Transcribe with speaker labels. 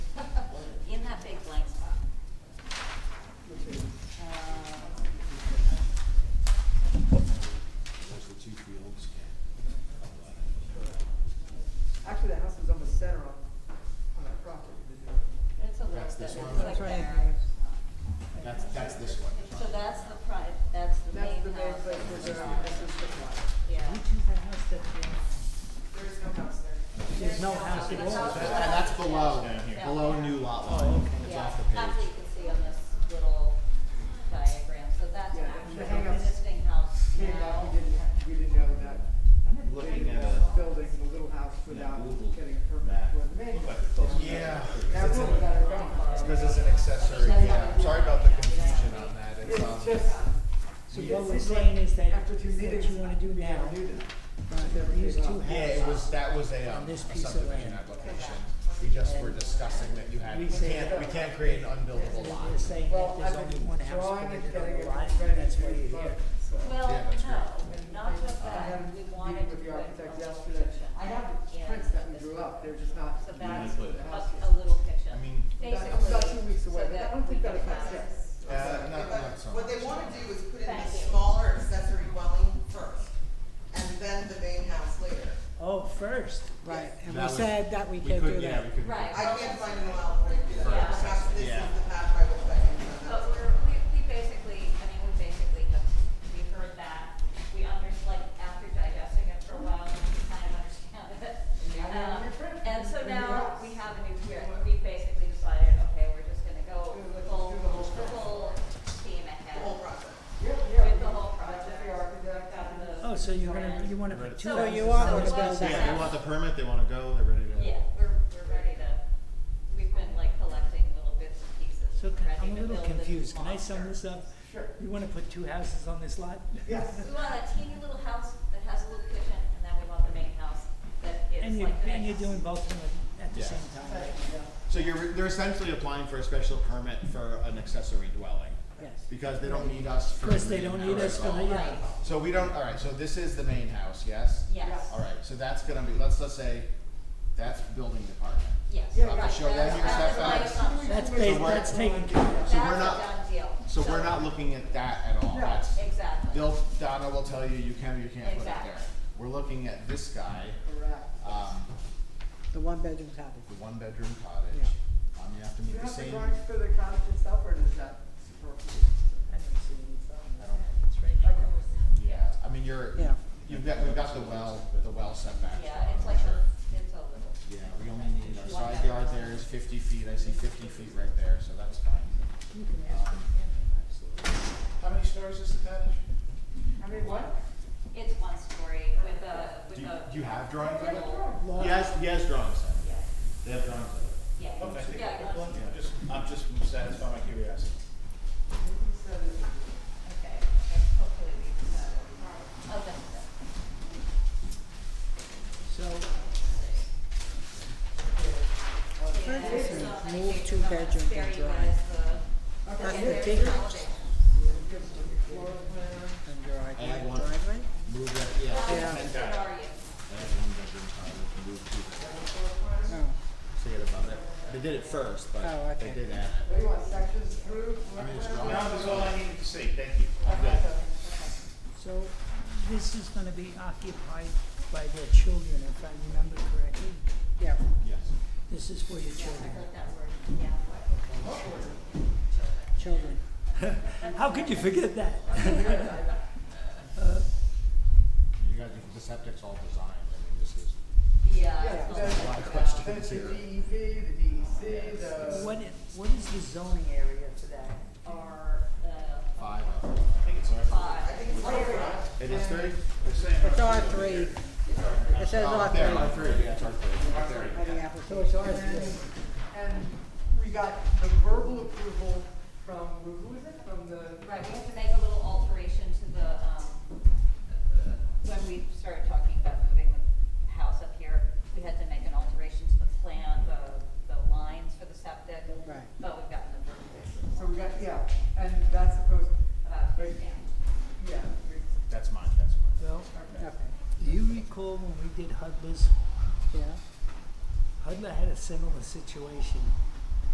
Speaker 1: Uh,
Speaker 2: This one?
Speaker 1: It's like there.
Speaker 2: That's, that's this one.
Speaker 1: So that's the pri, that's the
Speaker 3: That's the
Speaker 1: main
Speaker 3: main
Speaker 1: house.
Speaker 3: place where they're at, this is the plot.
Speaker 1: Yeah.
Speaker 3: There's no house there.
Speaker 4: There's no
Speaker 1: house
Speaker 4: house at all. Oh, Is
Speaker 2: That-
Speaker 4: that-
Speaker 2: That's below,
Speaker 1: Yeah.
Speaker 2: below new lot line. It's
Speaker 1: Yeah,
Speaker 2: off the
Speaker 1: that's what
Speaker 2: page.
Speaker 1: you can see on this little diagram, so that's
Speaker 3: Yeah,
Speaker 1: actually
Speaker 3: the hangouts.
Speaker 1: existing house
Speaker 3: Came
Speaker 1: now.
Speaker 3: up, we didn't, have- we didn't know that,
Speaker 5: Looking at a
Speaker 3: building the little house without
Speaker 5: Google
Speaker 3: getting a permit
Speaker 5: map.
Speaker 3: for the main.
Speaker 5: Look like
Speaker 3: house.
Speaker 5: it's close to
Speaker 2: Yeah.
Speaker 3: That would have got it wrong.
Speaker 2: This is an accessory, yeah, sorry about the confusion on that, it's,
Speaker 3: It's
Speaker 2: um,
Speaker 3: just,
Speaker 4: So
Speaker 3: Yeah.
Speaker 4: what we're saying is that
Speaker 3: after two
Speaker 4: what
Speaker 3: meetings,
Speaker 4: you wanna do
Speaker 3: we
Speaker 4: now,
Speaker 3: never knew that.
Speaker 4: right,
Speaker 3: Never
Speaker 4: these
Speaker 3: came
Speaker 4: two
Speaker 3: up.
Speaker 2: yeah, it was, that was a, um,
Speaker 4: On
Speaker 2: a
Speaker 4: this piece of
Speaker 2: subdivision
Speaker 4: land.
Speaker 2: application. We just were discussing that you had,
Speaker 4: We
Speaker 2: we
Speaker 4: say-
Speaker 2: can't, we can't create an unbuildable lot.
Speaker 4: we're saying that
Speaker 3: Well,
Speaker 4: there's
Speaker 3: I've
Speaker 4: only
Speaker 3: been
Speaker 4: one house
Speaker 3: drawing
Speaker 4: because
Speaker 3: and
Speaker 4: you're
Speaker 3: getting
Speaker 4: gonna
Speaker 3: it
Speaker 4: lie,
Speaker 3: ready to
Speaker 4: that's why you're
Speaker 3: vote,
Speaker 4: here.
Speaker 3: so.
Speaker 1: Well,
Speaker 2: Yeah, that's
Speaker 1: no, not just
Speaker 3: I
Speaker 1: that,
Speaker 3: had a
Speaker 1: we
Speaker 3: meeting
Speaker 1: wanted to
Speaker 3: with
Speaker 1: put
Speaker 3: the
Speaker 1: a
Speaker 3: architect
Speaker 1: little
Speaker 3: yesterday.
Speaker 1: kitchen.
Speaker 3: I have the
Speaker 1: in
Speaker 3: prints that we
Speaker 1: this
Speaker 3: drew
Speaker 1: room.
Speaker 3: up, they're just not.
Speaker 1: So
Speaker 3: in
Speaker 1: that's
Speaker 3: the
Speaker 1: a,
Speaker 3: house yet.
Speaker 1: a little
Speaker 2: I
Speaker 1: kitchen,
Speaker 2: mean,
Speaker 3: It's about two
Speaker 1: basically,
Speaker 3: weeks
Speaker 1: so
Speaker 3: away, but I
Speaker 1: that
Speaker 3: don't
Speaker 1: we
Speaker 3: think that
Speaker 1: can
Speaker 3: affects
Speaker 1: have.
Speaker 3: us.
Speaker 2: uh, not, not so
Speaker 6: What they
Speaker 2: much.
Speaker 6: wanna do is put in the
Speaker 1: Thank you.
Speaker 6: smaller accessory dwelling first, and then the main house later.
Speaker 4: Oh, first, right, and we
Speaker 2: That was-
Speaker 4: said that we can't
Speaker 2: could-
Speaker 4: do
Speaker 2: yeah,
Speaker 4: that.
Speaker 2: we could-
Speaker 1: Right.
Speaker 6: I can't find an allowable way to do that,
Speaker 1: Yeah.
Speaker 6: perhaps this is
Speaker 2: Yeah.
Speaker 6: the path by which I can
Speaker 1: But
Speaker 6: run that.
Speaker 1: we're, we, we basically, I mean, we basically have, we heard that, we under, like, after digesting it for a while, we kind of understand it.
Speaker 3: now we have a new
Speaker 1: Um,
Speaker 3: print.
Speaker 1: And so
Speaker 3: New
Speaker 1: now
Speaker 3: house.
Speaker 1: we have a new print, we basically decided, okay, we're just gonna go
Speaker 3: Do the-
Speaker 1: full,
Speaker 3: do the whole
Speaker 1: the
Speaker 3: print.
Speaker 1: whole steam
Speaker 6: The
Speaker 1: ahead.
Speaker 6: whole process.
Speaker 3: Yeah, yeah.
Speaker 1: With the
Speaker 3: we-
Speaker 1: whole
Speaker 3: that's what
Speaker 1: project.
Speaker 3: the architect
Speaker 1: Got
Speaker 3: and
Speaker 1: the-
Speaker 4: Oh, so you're gonna, you wanna
Speaker 2: Right.
Speaker 4: put two
Speaker 1: So-
Speaker 4: houses
Speaker 1: so
Speaker 4: in one
Speaker 1: what's-
Speaker 4: building?
Speaker 2: Yeah, they want the permit, they wanna go, they're ready to.
Speaker 1: Yeah, we're, we're ready to, we've been like collecting little bits and pieces,
Speaker 4: So can-
Speaker 1: ready to
Speaker 4: I'm
Speaker 1: build
Speaker 4: a
Speaker 1: this
Speaker 4: little confused, can I sum this up?
Speaker 3: Sure.
Speaker 4: You wanna put two houses on this lot?
Speaker 3: Yes.
Speaker 1: We want a teeny little house that has a little kitchen, and then we want the main house that is
Speaker 4: And you,
Speaker 1: like the
Speaker 4: and
Speaker 1: main
Speaker 4: you're doing
Speaker 1: house.
Speaker 4: both of them at the
Speaker 2: Yeah.
Speaker 4: same time,
Speaker 2: So you're, they're essentially applying Um, for a special permit for an accessory dwelling,
Speaker 4: yes.
Speaker 2: because they don't need us for.
Speaker 4: Because
Speaker 2: the
Speaker 4: they
Speaker 2: main
Speaker 4: don't need
Speaker 2: house
Speaker 4: us
Speaker 2: at
Speaker 4: for the,
Speaker 2: all.
Speaker 4: yeah.
Speaker 2: So we don't, alright, so this is the main house, yes?
Speaker 1: Yes,
Speaker 2: Alright, so that's gonna be, let's, let's say, that's building department.
Speaker 1: yes.
Speaker 3: Yeah,
Speaker 2: You have
Speaker 3: right,
Speaker 2: to show them your
Speaker 1: That's- that was
Speaker 2: setbacks,
Speaker 1: my assumption.
Speaker 4: That's
Speaker 3: So
Speaker 4: ba-
Speaker 2: we're-
Speaker 4: that's taken care of.
Speaker 2: So we're
Speaker 1: That's a
Speaker 2: not-
Speaker 1: done deal.
Speaker 2: so we're not looking at that at all,
Speaker 3: No.
Speaker 2: that's,
Speaker 1: Exactly.
Speaker 2: they'll, Donna will tell you, you can or you can't put it there.
Speaker 1: Exactly.
Speaker 2: We're looking at this guy,
Speaker 3: Correct.
Speaker 2: um,
Speaker 4: The one-bedroom cottage.
Speaker 2: the one-bedroom cottage, um, you have to
Speaker 3: Do you
Speaker 2: meet the
Speaker 3: have the
Speaker 2: same,
Speaker 3: drawings for the cottage itself, or does that superfluous?
Speaker 4: I don't see any problem with
Speaker 2: I don't-
Speaker 4: that, it's right
Speaker 3: Okay.
Speaker 4: here.
Speaker 2: yeah, I mean, you're,
Speaker 4: Yeah.
Speaker 2: you've got, we've got the well, the well setback.
Speaker 1: Yeah, it's like a, it's a little.
Speaker 2: Yeah, we only need, our side yard there is fifty feet, I see fifty feet right there, so that's fine.
Speaker 4: You can ask
Speaker 2: Um,
Speaker 4: them, absolutely.
Speaker 2: How many stories is the cottage?
Speaker 3: I mean, what?
Speaker 1: It's one story with a,
Speaker 2: Do
Speaker 1: with
Speaker 2: you,
Speaker 1: a.
Speaker 2: do you have drawings of it?
Speaker 4: Lot-
Speaker 2: Yes, yes, drawings of it.
Speaker 1: Yeah,
Speaker 2: They have drawings of it.
Speaker 1: yeah.
Speaker 5: Okay.
Speaker 1: Yeah,
Speaker 5: Well,
Speaker 1: yeah.
Speaker 2: Yeah.
Speaker 5: Just, I'm just satisfying my curiosity.
Speaker 1: Okay, okay, hopefully we can, uh, oh, that's
Speaker 4: So,
Speaker 1: it.
Speaker 4: move two bedroom to drive. and your
Speaker 2: I have one.
Speaker 4: driveway?
Speaker 2: Move that, yeah. I
Speaker 4: Yeah.
Speaker 2: have one bedroom cottage, move to
Speaker 4: Oh,
Speaker 2: the, say it above it. They did it first,
Speaker 4: Oh,
Speaker 2: but they
Speaker 4: okay.
Speaker 2: did add it.
Speaker 3: What do you want, sections through?
Speaker 2: I mean, it's
Speaker 3: floor
Speaker 2: drawing.
Speaker 3: plan?
Speaker 5: Now, that's all I needed to see, thank you. I'm
Speaker 3: Okay,
Speaker 5: good.
Speaker 4: so this is gonna be occupied by their children, if I remember correctly.
Speaker 3: Yeah.
Speaker 2: Yes.
Speaker 4: This is for your children.
Speaker 7: children.
Speaker 4: How could you forget that?
Speaker 2: You guys, the septic's all designed, I mean, this is
Speaker 1: Yeah.
Speaker 2: a lot of
Speaker 3: Then it's
Speaker 2: questions
Speaker 3: the
Speaker 2: here.
Speaker 3: DEV, E the DEC, the.
Speaker 4: What, i- what is the zoning area for that?
Speaker 1: Are, uh,
Speaker 2: Five of them.
Speaker 5: I think it's all right.
Speaker 1: five.
Speaker 6: I think it's over.
Speaker 2: It is three?
Speaker 5: They're saying-
Speaker 7: It's R three, it says
Speaker 2: Oh,
Speaker 7: R
Speaker 2: up there,
Speaker 7: three
Speaker 2: R three, yeah, it's R three. R three.
Speaker 7: on the application.
Speaker 3: And, and we got the verbal approval from, who was it, from the?
Speaker 1: Right, we have to make a little alteration to the, um, when we started talking about moving the house up here, we had to make an alteration to the plan, the, the lines for the septic.
Speaker 7: Right.
Speaker 1: But we've gotten the verbiage
Speaker 3: So we got, yeah, and that's supposed,
Speaker 1: about,
Speaker 3: Right.
Speaker 1: yeah.
Speaker 3: yeah, we-
Speaker 2: That's mine, that's mine.
Speaker 4: Well,
Speaker 3: okay.
Speaker 7: Okay,
Speaker 4: do you recall when we did Hudler's?
Speaker 7: yeah,
Speaker 4: Hudler had a similar situation.